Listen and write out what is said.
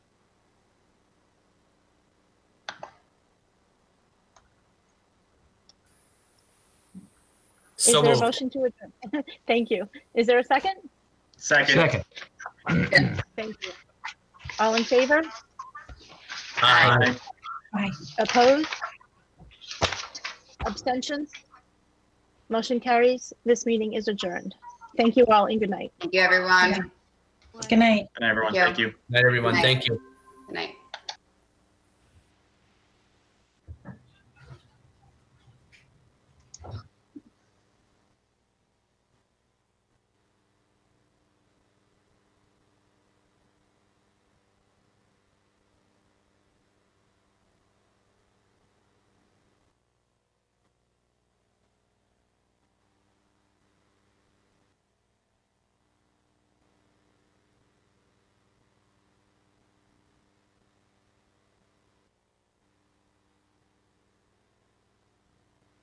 Is So there a moved. motion to adjourn? Thank you. Is there a second? Second. Second. Thank you. All in favor? Aye. Opposed? Abstentions? Motion carries. This meeting is adjourned. Thank you all and good night. Thank you, everyone. Good night. And everyone, thank you. Night, everyone. Thank you.